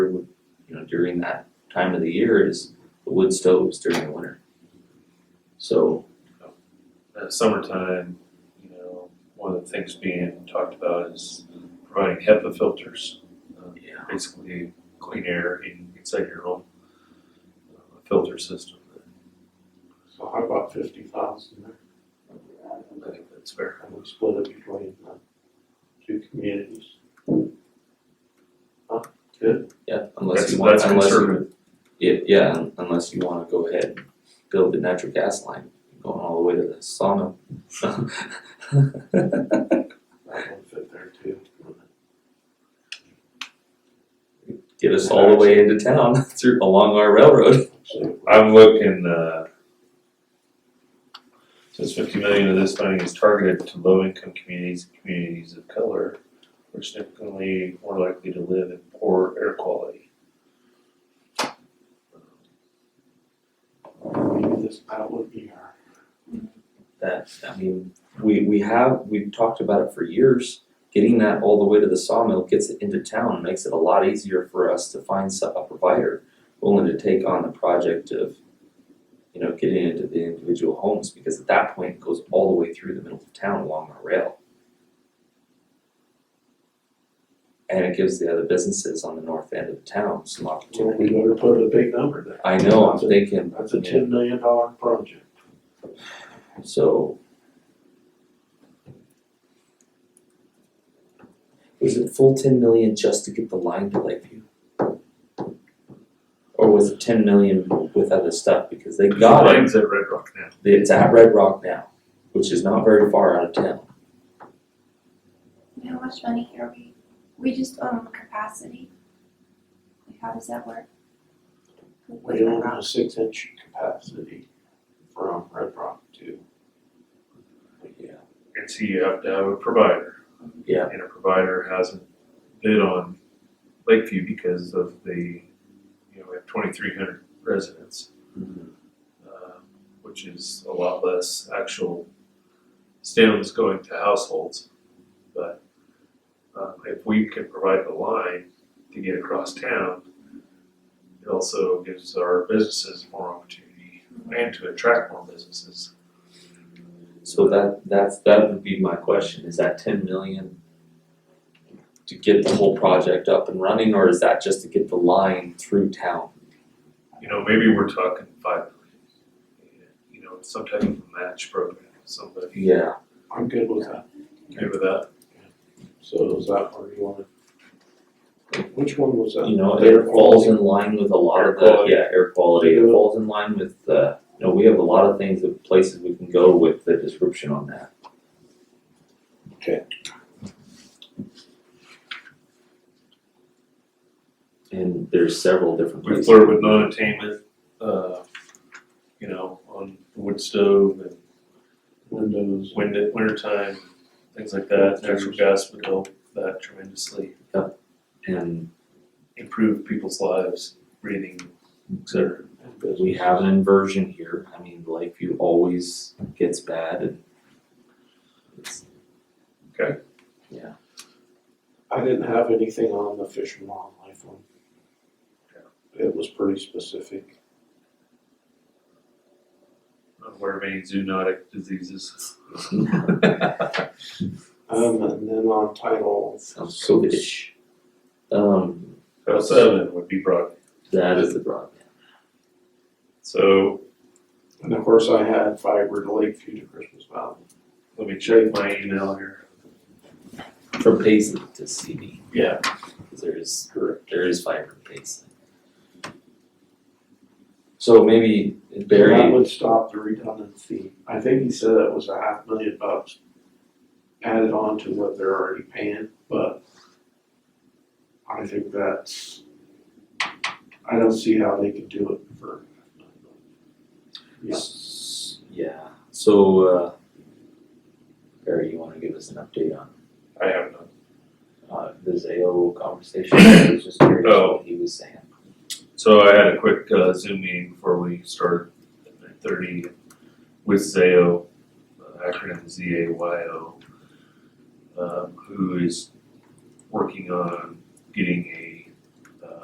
during that time of the year is the wood stoves during the winter. So, uh, summertime, you know, one of the things being talked about is providing HEPA filters. uh, yeah, Basically, clean air in- inside your home, uh, filter system. So how about fifty thousand there? I think that's fair. And we split it between the two communities. Huh, good, yeah, unless That's, you want, that's unless you conservative. Yeah, yeah, un- unless you wanna go ahead and build the natural gas line, going all the way to the sauna. that one fit there too. Get us all the way into town through, along our railroad. So I'm looking, uh, since fifty million of this funding is targeted to low-income communities, and communities of color, are significantly more likely to live in poor air quality. maybe this, that would be our, That, I mean, we, we have, we've talked about it for years. Getting that all the way to the sawmill gets it into town, makes it a lot easier for us to find so- a provider willing to take on the project of, you know, getting into the individual homes, because at that point, it goes all the way through the middle of town along our rail. And it gives the other businesses on the north end of town some well, we opportunity. better put a big number there. I know, I'm thinking, That's a ten million dollar project. So. Was it full ten million just to get the line to Lakeview? Or was it ten million with other stuff, because they got it, Mine's at Red Rock now. it's at Red Rock now, which is not very far out of town. How much money are we, we just own capacity? Like, how does that work? With We the own a rock? six inch capacity from Red Rock to, Yeah. And so you have to have a provider. Yeah. And a provider hasn't bid on Lakeview because of the, you know, we have twenty-three hundred residents, um, which is a lot less actual stems going to households. But, um, if we can provide the line to get across town, it also gives our businesses more opportunity and to attract more businesses. So that, that's, that would be my question, is that ten million to get the whole project up and running, or is that just to get the line through town? you know, maybe we're talking five million. You know, some type of match program, somebody Yeah, I'm good with that. okay with that? So is that where you wanna? Which one was that? you know, Air it falls in line with a lot of Air the, quality. yeah, air quality, it Yeah. falls in line with, uh, you know, we have a lot of things, that places we can go with the description on that. Okay. And there's several different We places. flirt with non-attainment, uh, you know, on the wood stove and Windows. wind at wintertime, things like that. Natural gas would help that tremendously, And improve people's lives, breathing, et cetera. and business. we have an inversion here, I mean, Lakeview always gets bad and it's, I didn't have anything on the fish and wildlife one. It was pretty specific. Not aware of any zoonotic diseases. Um, and then on title sounds COVID-ish. Um, So seven would be broad. that is the broadband. So And of course, I had fiber to Lakeview to Christmas Valley. let me check my email here. From Paisley to CB, Yeah, because there is Correct. there is fiber Paisley. So maybe That Barry, would stop the redundancy. I think he said it was a half million bucks added on to what they're already paying, but I think that's, I don't see how they could do it for. Yeah. S- yeah, so uh Barry, you wanna give us an update on I have none. uh the Zayo conversation, I was just curious Oh. what he was saying. So I had a quick uh, Zoom meeting before we started at nine thirty with Zayo, uh, acronym Z A Y O, um, who is working on getting a